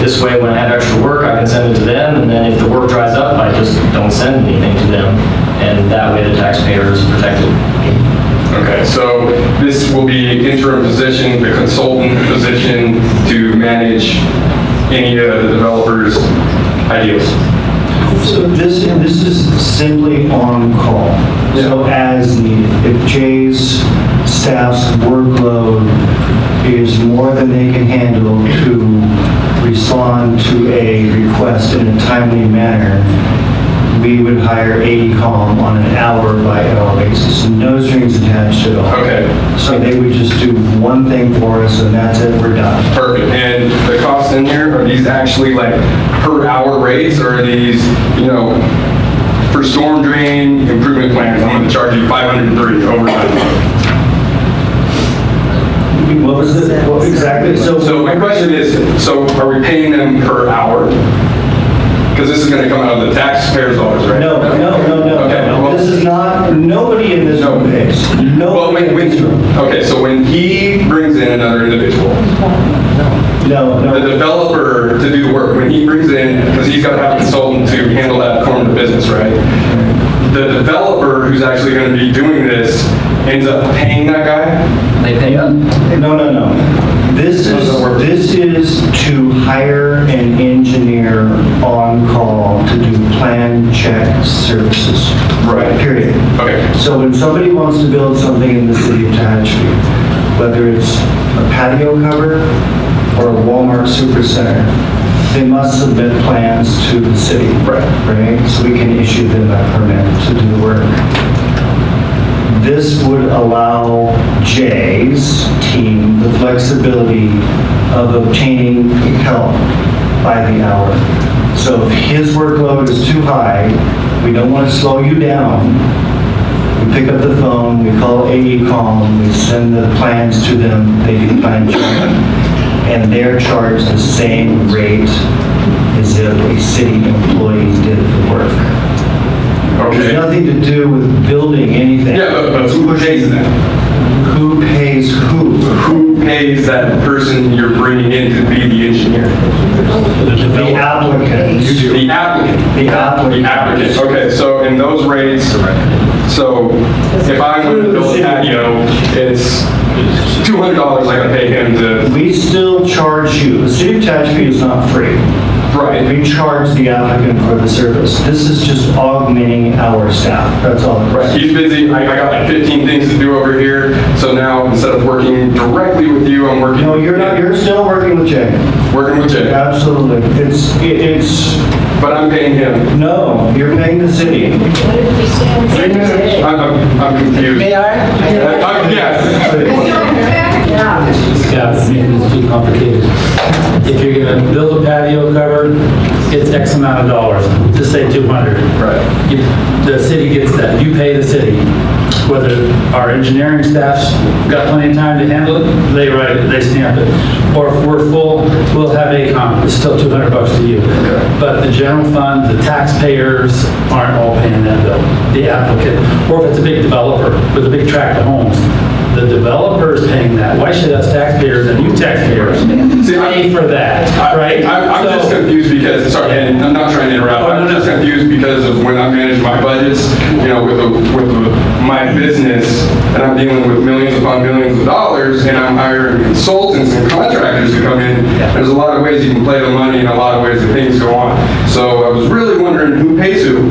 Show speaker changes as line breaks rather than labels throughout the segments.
This way, when I have extra work, I can send it to them, and then if the work dries up, I just don't send anything to them, and that way the taxpayer is protected.
Okay, so this will be interim position, the consultant position to manage any of the developer's ideas.
So this, and this is simply on call, so as needed. If Jay's staff's workload is more than they can handle to respond to a request in a timely manner, we would hire AECom on an hour-by-hour basis, no strings attached at all.
Okay,
So they would just do one thing for us, and that's it, we're done.
perfect. And the costs in here, are these actually like per hour rates or are these, you know, for storm drain improvement plans, I'm gonna charge you 503 overtime.
What was the, what exactly, so...
So my question is, so are we paying them per hour? Because this is gonna come out of the taxpayers' dollars, right?
No, no, no, no,
Okay, well-
no. This is not, nobody in this room pays.
Well,
Nobody
when,
in
when,
this room.
okay, so when he brings in another individual,
No,
the
no.
developer to do the work, when he brings in, because he's got to have a consultant to handle that form of business, right? The developer who's actually going to be doing this ends up paying that guy?
They pay up?
No, no, no. This
How
is,
does that work?
this is to hire an engineer on call to do plan check services.
Right.
Period.
Okay,
So when somebody wants to build something in the city of Tehachapi, whether it's a patio cover or a Walmart supercenter, they must submit plans to the city.
Right.
Right? So we can issue them that permit to do the work. This would allow Jay's team the flexibility of obtaining help by the hour. So if his workload is too high, we don't want to slow you down, we pick up the phone, we call AECom, we send the plans to them, they do plan check, and they're charged the same rate as if a city employee did the work. There's
okay.
nothing to do with building anything.
Yeah, but, but who pays that?
Who pays who?
Who pays that person you're bringing in to be the engineer?
The applicant.
The applicant.
The
The
applicant.
applicant, okay, so in those rates, so if I were to build a patio, it's $200 I gotta pay him to,
We still charge you, the city of Tehachapi is not free.
right,
We charge the applicant for the service. This is just augmenting our staff, that's all. it is.
right, he's busy, I I got like 15 things to do over here, so now instead of working directly with you, I'm working.
No, you're not, you're still working with Jay.
Working with Jay,
Absolutely. It's, it- it's,
but I'm paying him.
no, you're paying the city.
I'm- I'm, I'm confused.
Mayor?
Uh, uh, Yes.
Yeah, it's making this too complicated. If you're gonna build a patio cover, it's X amount of dollars, just say 200.
Right,
You- The city gets that, you pay the city. Whether our engineering staff's got plenty of time to handle it, they write it, they stamp it. Or if we're full, we'll have ACOM, it's still 200 bucks to you. But the general fund, the taxpayers aren't all paying that bill, the applicant. Or if it's a big developer with a big tract of homes, the developer is paying that. Why should us taxpayers and you taxpayers
See, I-
pay for that, right?
I'm, I'm just
So-
confused because, sorry, and I'm not trying to interrupt,
Oh, no,
I'm
no.
just confused because of when I manage my budgets, you know, with, the- with the- my business, and I'm dealing with millions upon millions of dollars, and I'm hiring consultants and contractors to come in, there's a lot of ways you can play the money and a lot of ways that things go on. So I was really wondering who pays who,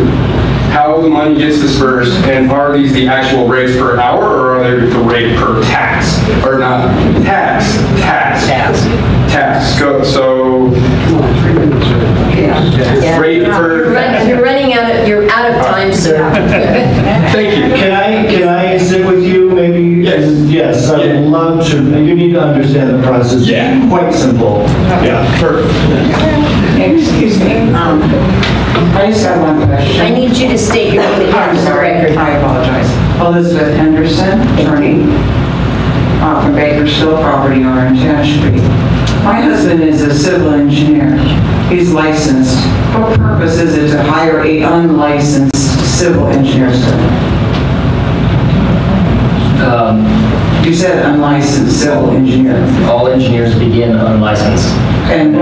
how the money gets dispersed, and are these the actual rates per hour, or are they the rate per tax? Or not, tax, tax.
Tax.
Tax, go, so rate per,
You're running out of, you're out of time, sir.
thank you.
Can I, can I sit with you maybe?
Yes.
Yes, I would
Yeah.
love to, you need to understand the process.
Yeah.
Quite simple. Yeah.
Perfect.
Excuse me. um, I just have one question.
I need you to state your name and address
I'm
for the
sorry,
record.
I apologize. Elizabeth Henderson, attorney, uh, from Bakersfield property owner in Tehachapi. My husband is a civil engineer. He's licensed. What purpose is it to hire a unlicensed civil engineer? sir?
Um,
You said unlicensed civil engineer.
All engineers begin unlicensed.
And